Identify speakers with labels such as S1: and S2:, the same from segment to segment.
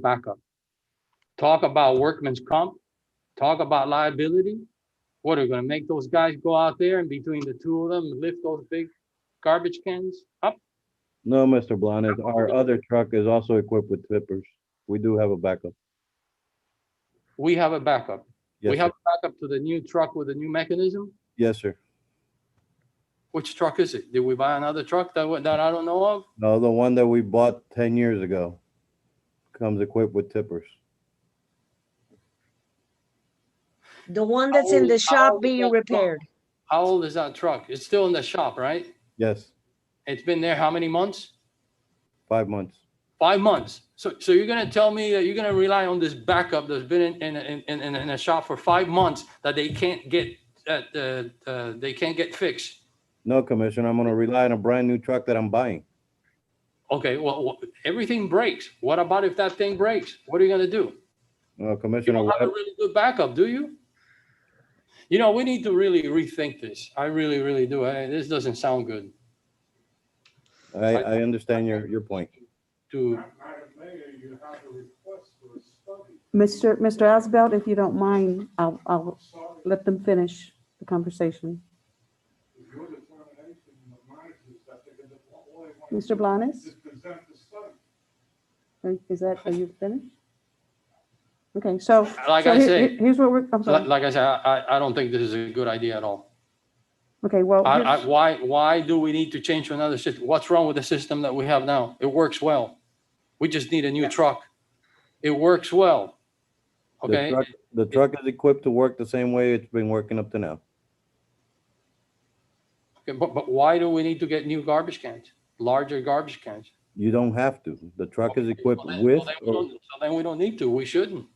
S1: backup. Talk about workman's comp, talk about liability. What, are we gonna make those guys go out there and between the two of them lift those big garbage cans up?
S2: No, Mr. Blanes, our other truck is also equipped with tippers. We do have a backup.
S1: We have a backup.
S2: Yes,
S1: We
S2: sir.
S1: have a backup to the new truck with the new mechanism.
S2: Yes, sir.
S1: Which truck is it? Did we buy another truck that, wa- that I don't know of?
S2: No, the one that we bought ten years ago comes equipped with tippers.
S3: The one that's in
S1: How-
S3: the
S1: how
S3: shop being
S1: old-
S3: repaired.
S1: How old is that truck? It's still in the shop, right?
S2: Yes,
S1: It's been there how many months?
S2: five months.
S1: Five months. So, so you're gonna tell me that you're gonna rely on this backup that's been in, in, in, in- in, in a shop for five months that they can't get, that, uh, uh, they can't get fixed?
S2: No, Commissioner, I'm gonna rely on a brand new truck that I'm buying.
S1: Okay, well, wha- everything breaks. What about if that thing breaks? What are you gonna do?
S2: No,
S1: You
S2: Commissioner,
S1: don't have a
S2: what-
S1: really good backup, do you? You know, we need to really rethink this. I really, really do. I- This doesn't sound good
S2: I, I understand your, your point.
S1: to,
S4: Madam Mayor, you have a request for a study.
S5: Mr. Mr. Asbelt, if you don't mind, I'll, I'll
S4: Sorry,
S5: let them finish the conversation.
S4: your determination of mine is that they're gonna, all they want to
S5: Mr.
S4: do
S5: Blanes,
S4: is present the study.
S5: are- is that, are you finished? Okay, so.
S1: Like
S5: so
S1: I
S5: here-
S1: say-
S5: here- Here's what we're, I'm
S1: li-
S5: sorry.
S1: like I said, I, I- I don't think this is a good idea at all.
S5: Okay, well,
S1: I, I,
S5: here's-
S1: why, why do we need to change to another system? What's wrong with the system that we have now? It works well. We just need a new truck. It works well.
S2: The
S1: Okay,
S2: truck, the truck is equipped to work the same way it's been working up to now.
S1: Okay, but, but why do we need to get new garbage cans, larger garbage cans?
S2: You don't have to. The truck is equipped
S1: Well, then- well,
S2: with,
S1: then we
S2: or-
S1: don't- So then we don't need to, we shouldn't.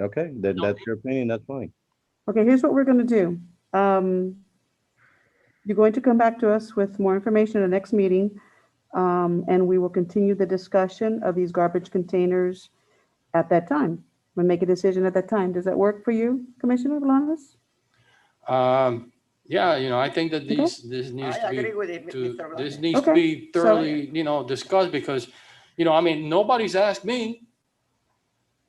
S2: okay, then
S1: No.
S2: that's your opinion, that's fine.
S5: okay, here's what we're gonna do. Um, you're going to come back to us with more information at the next meeting. Um, and we will continue the discussion of these garbage containers at that time. We'll make a decision at that time. Does that work for you, Commissioner Blanes?
S1: Um, yeah, you know, I think that these, this needs
S6: I
S1: to
S6: agree
S1: be,
S6: with it,
S1: to,
S6: Mr.
S1: this
S6: Blanes.
S1: needs to
S5: Okay,
S1: be
S5: so-
S1: thoroughly, you know, discussed because, you know, I mean, nobody's asked me.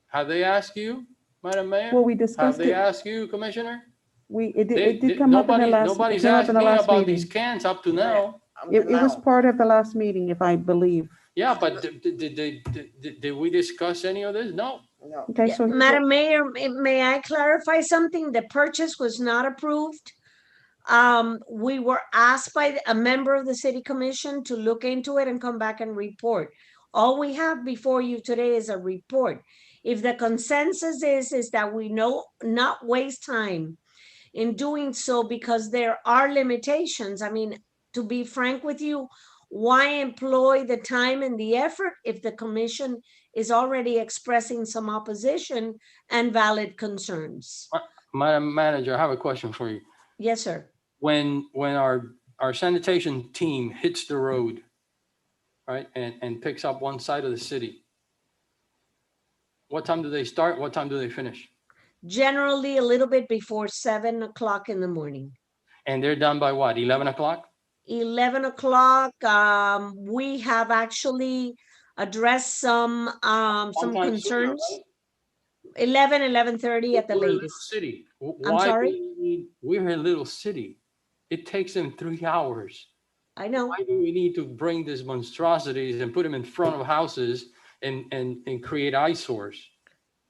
S1: Have they asked you, Madam Mayor?
S5: Well, we
S1: Have
S5: discussed
S1: Uh, they
S5: it.
S1: asked you, Commissioner?
S5: We, it did,
S1: They-
S5: it
S1: they-
S5: did come up in the
S1: nobody-
S5: last, it
S1: Nobody's
S5: came up
S1: asked
S5: in the
S1: me
S5: last
S1: about these
S5: meeting.
S1: cans up to now.
S6: I'm
S5: It, it was
S6: now.
S5: part of the last meeting, if I believe.
S1: Yeah, but did, did, did, did, did we discuss any of this? No.
S6: No.
S5: Okay,
S3: Yeah,
S5: so. here's what-
S3: Madam Mayor, may- may I clarify something? The purchase was not approved. Um, we were asked by the- a member of the city commission to look into it and come back and report. All we have before you today is a report. If the consensus is, is that we know, not waste time in doing so because there are limitations. I mean, to be frank with you, why employ the time and the effort if the commission is already expressing some opposition and valid concerns.
S1: Madam Manager, I have a question for you.
S3: Yes, sir.
S1: When, when our, our sanitation team hits the road, right, and, and picks up one side of the city, what time do they start? What time do they finish?
S3: Generally, a little bit before seven o'clock in the morning.
S1: And they're done by what, 11 o'clock?
S3: 11 o'clock, um, we have actually addressed some, um, some
S1: Sometimes sooner,
S3: concerns.
S1: right?
S3: 11, 11:30 at the
S1: We're a little
S3: latest.
S1: City. W-
S3: I'm
S1: why do
S3: sorry?
S1: we need- We're a little city. It takes them three hours.
S3: I know.
S1: Why do we need to bring these monstrosities and put them in front of houses and, and, and create eyesores?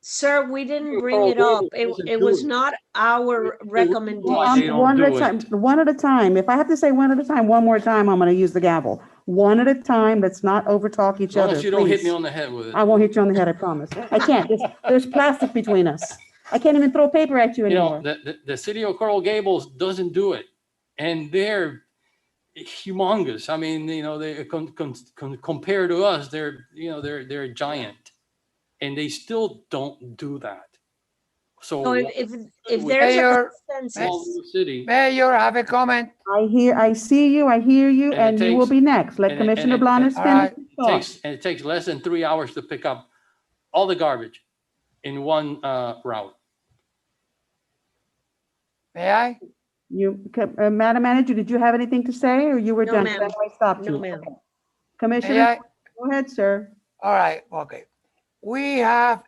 S3: Sir, we didn't
S1: You're
S3: bring
S1: all
S3: it up.
S1: over.
S3: It,
S1: Doesn't
S3: it
S1: do
S3: was
S1: it.
S3: not our recommendation.
S1: they
S5: Um,
S1: don't
S5: One at
S1: do
S5: a time,
S1: it.
S5: one at a time. If I have to say one at a time, one more time, I'm gonna use the gavel. One at a time, let's not overtalk
S1: As
S5: each
S1: long
S5: other,
S1: as you don't hit me
S5: please.
S1: on the head with it.
S5: I won't hit you on the head, I promise. I can't. There's, there's plastic between us. I can't even throw paper at you
S1: You know,
S5: anymore.
S1: the, the, the city of Coral Gables doesn't do it. And they're humongous. I mean, you know, they, con- con- con- compared to us, they're, you know, they're, they're a giant. And they still don't do that. So.
S3: So
S1: why
S3: if, if- if
S1: we-
S3: there's a
S7: Mayor,
S1: small
S3: consensus,
S1: little City.
S7: Mayor, I have a comment.
S5: I hear, I see you, I hear you,
S1: And
S5: and
S1: it
S5: you will
S1: takes-
S5: be next.
S1: and
S5: Let
S1: it- and
S5: Commissioner
S1: it-
S5: Blanes
S7: all
S5: finish.
S7: right,
S5: his
S1: It
S5: thought.
S1: takes, and it takes less than three hours to pick up all the garbage in one uh, route.
S7: May I?
S5: You, co- uh, Madam Manager, did you have anything to say, or you were
S3: No,
S5: done?
S3: ma'am.
S5: That's why I stopped
S3: no
S5: you.
S3: ma'am.
S7: May
S5: Commissioner,
S7: I?
S5: go ahead, sir.
S7: All right, okay. we have